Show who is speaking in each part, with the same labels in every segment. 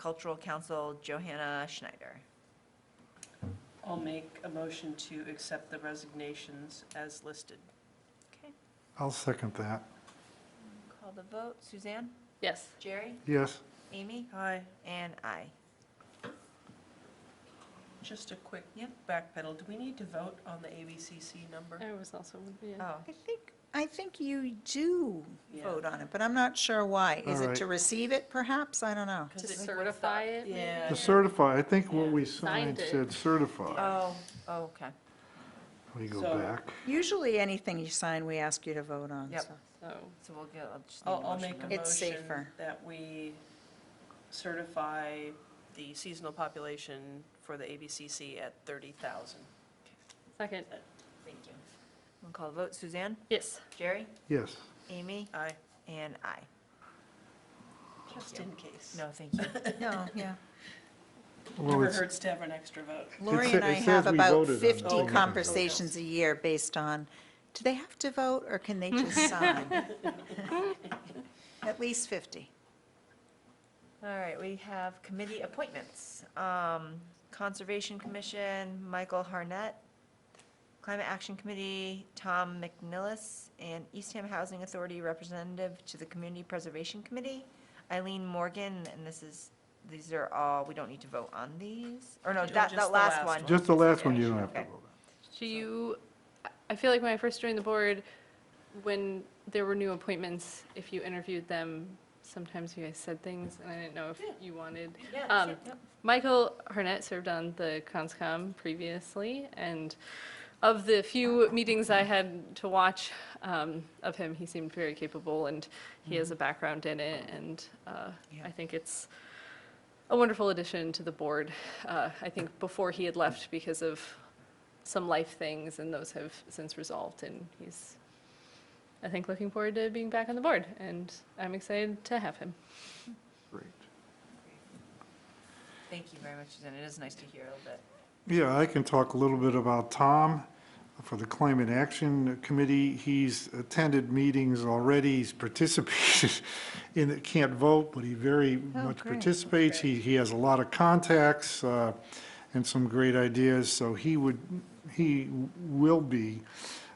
Speaker 1: Cultural Council, Johanna Schneider.
Speaker 2: I'll make a motion to accept the resignations as listed.
Speaker 1: Okay,
Speaker 3: I'll second that.
Speaker 1: call the vote. Suzanne?
Speaker 4: Yes.
Speaker 1: Jerry?
Speaker 3: Yes,
Speaker 1: Amy?
Speaker 2: Hi,
Speaker 1: And I.
Speaker 2: just a quick
Speaker 1: Yep.
Speaker 2: backpedal. Do we need to vote on the ABCC number?
Speaker 4: I was also,
Speaker 2: Uh,
Speaker 4: yeah.
Speaker 1: Oh,
Speaker 5: I think, I think you do
Speaker 2: Yeah.
Speaker 5: vote on it, but I'm not sure why. Is
Speaker 3: All
Speaker 5: it
Speaker 3: right.
Speaker 5: to receive it perhaps? I don't know.
Speaker 4: To
Speaker 2: Because it-
Speaker 4: certify it, maybe?
Speaker 2: Yeah.
Speaker 3: to certify, I think what
Speaker 2: Yeah,
Speaker 3: we signed
Speaker 4: signed it.
Speaker 3: said certify.
Speaker 1: oh, okay.
Speaker 3: Let me go
Speaker 2: So-
Speaker 3: back.
Speaker 5: Usually, anything you sign, we ask you to vote on,
Speaker 1: Yep.
Speaker 5: so.
Speaker 4: So,
Speaker 1: So we'll get, I'll just need
Speaker 2: I'll, I'll
Speaker 1: a
Speaker 2: make
Speaker 1: motion
Speaker 2: a
Speaker 1: then.
Speaker 5: It's
Speaker 2: motion
Speaker 5: safer.
Speaker 2: that we certify the seasonal population for the ABCC at 30,000.
Speaker 4: second,
Speaker 1: Thank you. We'll call the vote. Suzanne?
Speaker 4: yes.
Speaker 1: Jerry?
Speaker 3: Yes,
Speaker 1: Amy?
Speaker 2: Aye,
Speaker 1: And I.
Speaker 2: just in case.
Speaker 1: No, thank you.
Speaker 5: No, yeah.
Speaker 3: well,
Speaker 2: Never
Speaker 3: it's,
Speaker 2: hurts to have an extra vote.
Speaker 5: Lori
Speaker 3: sa-
Speaker 5: and I
Speaker 3: it
Speaker 5: have
Speaker 3: says we
Speaker 5: about
Speaker 3: voted on it. Oh,
Speaker 5: 50
Speaker 3: okay.
Speaker 5: conversations a year based on, do they have to vote or can they just sign? At least 50.
Speaker 1: All right, we have committee appointments. Um, Conservation Commission, Michael Harnett. Climate Action Committee, Tom McNillis. And Eastham Housing Authority Representative to the Community Preservation Committee, Eileen Morgan. And this is, these are all, we don't need to vote on these? Or no,
Speaker 2: No,
Speaker 1: that,
Speaker 2: just
Speaker 1: that
Speaker 2: the
Speaker 1: Oh, last
Speaker 2: last
Speaker 1: one.
Speaker 2: one.
Speaker 3: just the last one you don't have to
Speaker 1: Okay.
Speaker 3: vote on.
Speaker 4: Do you, I- I feel like when I first joined the board, when there were new appointments, if you interviewed them, sometimes you guys said things, and I didn't know if
Speaker 2: Yeah.
Speaker 4: you wanted.
Speaker 1: Yeah,
Speaker 4: Um,
Speaker 1: sure, yep.
Speaker 4: Michael Harnett served on the ConsCom previously, and of the few meetings I had to watch um, of him, he seemed very capable, and he has a background in it, and uh, I think it's a wonderful addition to the board. Uh, I think before he had left because of some life things, and those have since resolved, and he's, I think, looking forward to being back on the board, and I'm excited to have him.
Speaker 3: Great.
Speaker 1: Thank you very much, Suzanne. It is nice to hear a little bit.
Speaker 3: Yeah, I can talk a little bit about Tom for the Climate Action Committee. He's attended meetings already, he's participated in, it. can't vote, but he very
Speaker 5: Oh,
Speaker 3: much
Speaker 5: great.
Speaker 3: participates. He, he has a lot of contacts uh, and some great ideas, so he would, he will be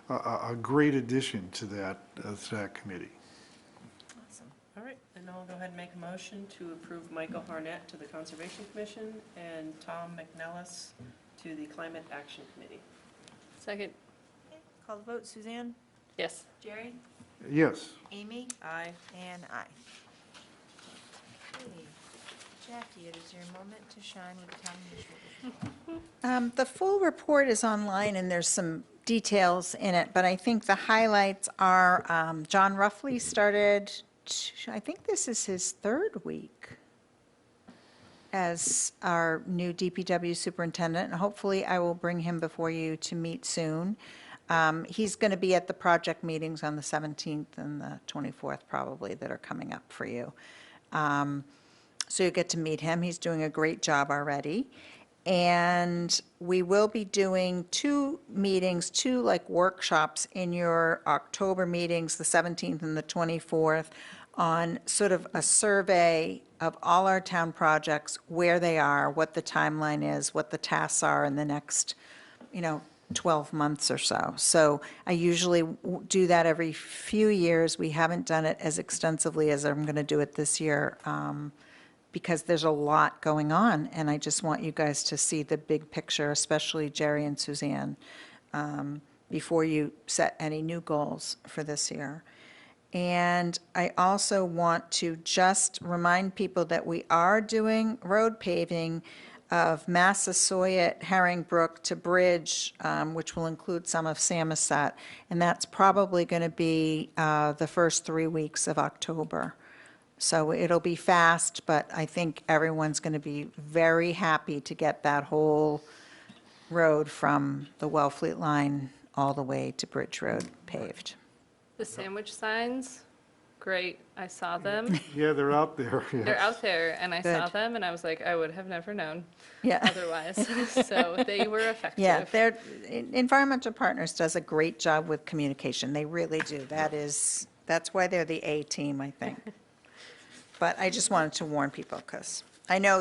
Speaker 3: a- a, a great addition to that, uh, to that committee.
Speaker 1: Awesome.
Speaker 2: All right, then I'll go ahead and make a motion to approve Michael Harnett to the Conservation Commission and Tom McNellis to the Climate Action Committee.
Speaker 4: Second,
Speaker 1: Okay, Call the vote. Suzanne?
Speaker 4: yes.
Speaker 1: Jerry?
Speaker 3: Yes,
Speaker 1: Amy?
Speaker 2: Aye.
Speaker 1: And I. Okay, Jackie, it is your moment to shine with the town administrator.
Speaker 5: Um, The full report is online, and there's some details in it, but I think the highlights are, um, John Ruffley started, t- I think this is his third week as our new DPW superintendent, and hopefully I will bring him before you to meet soon. Um, He's going to be at the project meetings on the 17th and the 24th probably that are coming up for you. Um, so you get to meet him. He's doing a great job already. And we will be doing two meetings, two like workshops in your October meetings, the 17th and the 24th, on sort of a survey of all our town projects, where they are, what the timeline is, what the tasks are in the next, you know, 12 months or so. So I usually w- do that every few years. We haven't done it as extensively as I'm going to do it this year um, because there's a lot going on, and I just want you guys to see the big picture, especially Jerry and Suzanne, um, before you set any new goals for this year. And I also want to just remind people that we are doing road paving of Massasoit, Herring Brook to Bridge, um, which will include some of Samoset. And that's probably going to be uh, the first three weeks of October. So it'll be fast, but I think everyone's going to be very happy to get that whole road from the Wellfleet line all the way to Bridge Road paved.
Speaker 4: The sandwich signs, great, I saw them.
Speaker 3: yeah, they're out there,
Speaker 4: They're
Speaker 3: yes.
Speaker 4: out there, and I saw
Speaker 5: Good.
Speaker 4: them, and I was like, I would have never known
Speaker 5: Yeah.
Speaker 4: otherwise. So they were effective.
Speaker 5: Yeah, they're, En- Environmental Partners does a great job with communication. They really do. That is, that's why they're the A-team, I think. But I just wanted to warn people, because I know